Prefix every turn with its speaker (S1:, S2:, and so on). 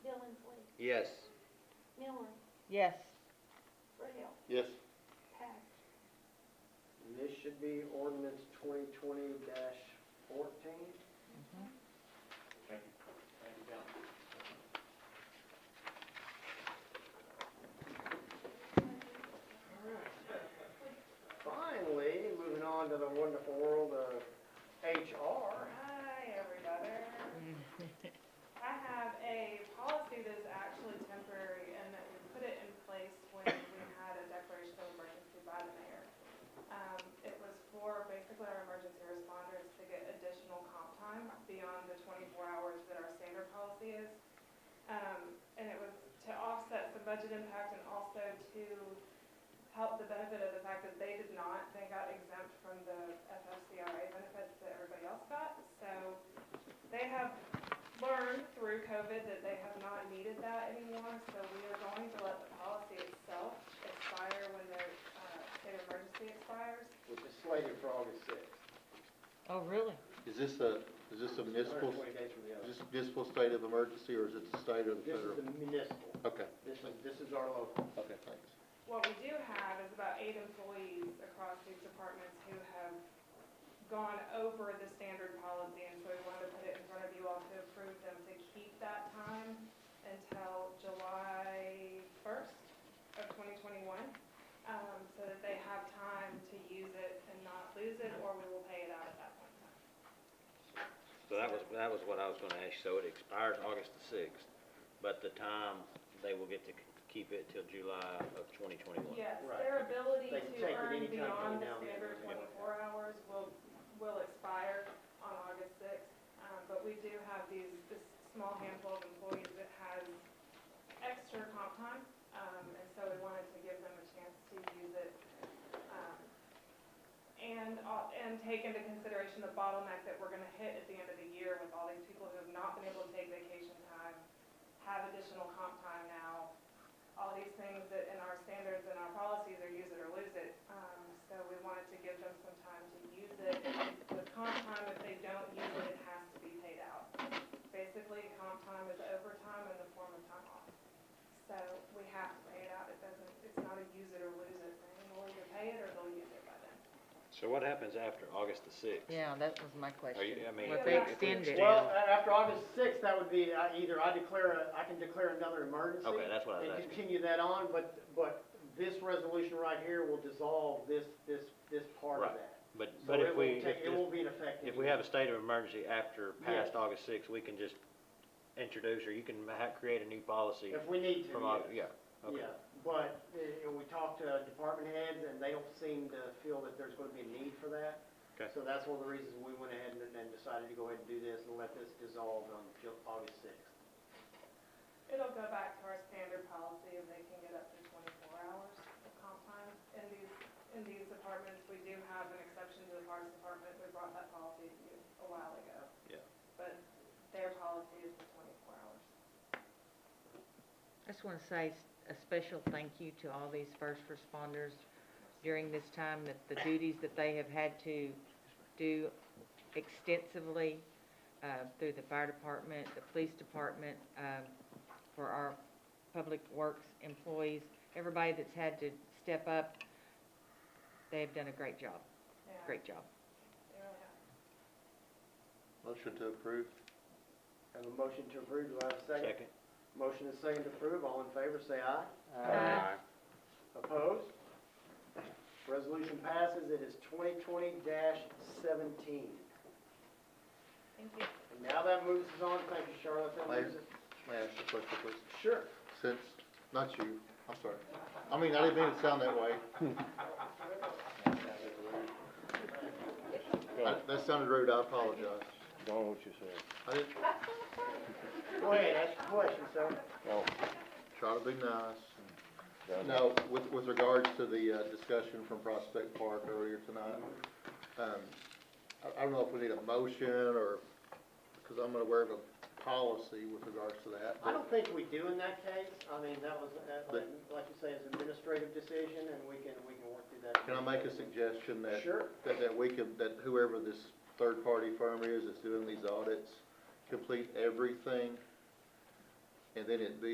S1: Yes.
S2: Miller,
S3: Yes.
S2: Braille,
S4: Yes.
S2: Pack,
S5: And this should be ordinance twenty twenty fourteen.
S4: Thank you. Thank you, John.
S5: Finally, moving on to the wonderful world of HR.
S6: Hi, everybody. I have a policy that is actually temporary and that we put it in place when we had a declaration of emergency by the mayor. Um, it was for basically our emergency responders to get additional comp time beyond the twenty-four hours that our standard policy is. Um, and it was to offset some budget impact and also to help the benefit of the fact that they did not, they got exempt from the FFCRA benefits that everybody else got. So they have learned through COVID that they have not needed that anymore, so we are going to let the policy itself expire when their, uh, state of emergency expires.
S5: which is slated for August sixth.
S3: Oh, really?
S4: Is this a, is this a municipal,
S5: Twenty days from the
S4: is
S5: other.
S4: this a municipal state of emergency, or is it the state or the
S5: This is
S4: federal?
S5: the municipal,
S4: Okay,
S5: this is, this is our local.
S4: okay, thanks.
S6: What we do have is about eight employees across these departments who have gone over the standard policy, and so we wanted to put it in front of you all to approve them to keep that time until July first of twenty twenty-one, um, so that they have time to use it and not lose it, or we will pay it out at that point in time.
S1: So that was, that was what I was gonna ask, so it expires August the sixth, but the time, they will get to keep it till July of twenty twenty-one.
S6: Yes,
S5: Right.
S6: their ability
S5: They can
S6: to
S5: take it
S6: earn
S5: anytime from
S6: beyond the
S5: now and then,
S6: standard
S5: yeah.
S6: twenty-four hours will, will expire on August sixth. Um, but we do have these, this small handful of employees that has extra comp time, um, and so we wanted to give them a chance to use it. um, And, al- and take into consideration the bottleneck that we're gonna hit at the end of the year with all these people who have not been able to take vacation time, have additional comp time now, all these things that in our standards and our policies are use it or lose it. Um, so we wanted to give them some time to use it. With comp time, if they don't use it, it has to be paid out. Basically, comp time is overtime in the form of time off. So we have to pay it out. It doesn't, it's not a use it or lose it thing. We'll either pay it or they'll use it by then.
S1: So what happens after August the sixth?
S3: Yeah, that was my question.
S1: Are you, Oh, I mean.
S3: Well, if
S1: if
S3: they
S1: we
S3: extend it.
S5: Well, a-
S1: uh,
S5: after August sixth, that would be, uh, either I declare, a I can declare another emergency.
S1: Okay, that's what I was
S5: And
S1: asking.
S5: continue that on, but, but this resolution right here will dissolve this, this, this part of
S1: Right.
S5: that.
S1: But,
S5: So
S1: but if we,
S5: it won't
S1: if,
S5: take- It
S1: this-
S5: won't be in effect.
S1: if we have a state of emergency after past
S5: Yes.
S1: August sixth, we can just introduce, or you can ha- create a new policy
S5: If we need to.
S1: from,
S5: yes.
S1: Aug- yeah, okay.
S5: Yeah, but, uh, you know, we talked to department heads, and they don't seem to feel that there's gonna be a need for that.
S1: Okay.
S5: So that's one of the reasons we went ahead and and decided to go ahead and do this and let this dissolve on Ju- August sixth.
S6: It'll go back to our standard policy if they can get up to twenty-four hours of comp time. In these, in these departments, we do have an exception to the parks department, we brought that policy to you a while ago.
S1: Yeah.
S6: But their policy is the twenty-four hours.
S3: I just want to say s- a special thank you to all these first responders during this time, that the duties that they have had to do extensively uh, through the fire department, the police department, um, for our public works employees, everybody that's had to step up, they've done a great job,
S6: Yeah,
S3: great job.
S6: they really have.
S4: Motion to approve?
S5: Have a motion to approve, do I have a second?
S1: Second?
S5: Motion is second to approve, all in favor, say aye.
S3: Aye.
S5: Opposed? Resolution passes, it is twenty twenty seventeen.
S6: Thank you.
S5: And now that moves us on, thank you, Charlotte, that moves it.
S4: May I ask a question, please?
S5: Sure.
S4: Since, not you, I'm sorry. I mean, I didn't mean it sound that way. That- That sounded rude, I apologize.
S7: Don't know what you said.
S4: I didn't,
S5: Go ahead, ask your question, sir.
S7: Oh,
S4: try to be nice.
S7: done.
S4: No, with, with regards to the uh, discussion from Prospect Park earlier tonight, um, I, I don't know if we need a motion or, because I'm unaware of a policy with regards to that.
S5: I don't think we do in that case, I mean, that was, uh, like
S4: But-
S5: like you say, it's an administrative decision, and we can, we can work through that.
S4: Can I make a suggestion that?
S5: Sure.
S4: That, that we could, that whoever this third-party firm is that's doing these audits, complete everything, and then it be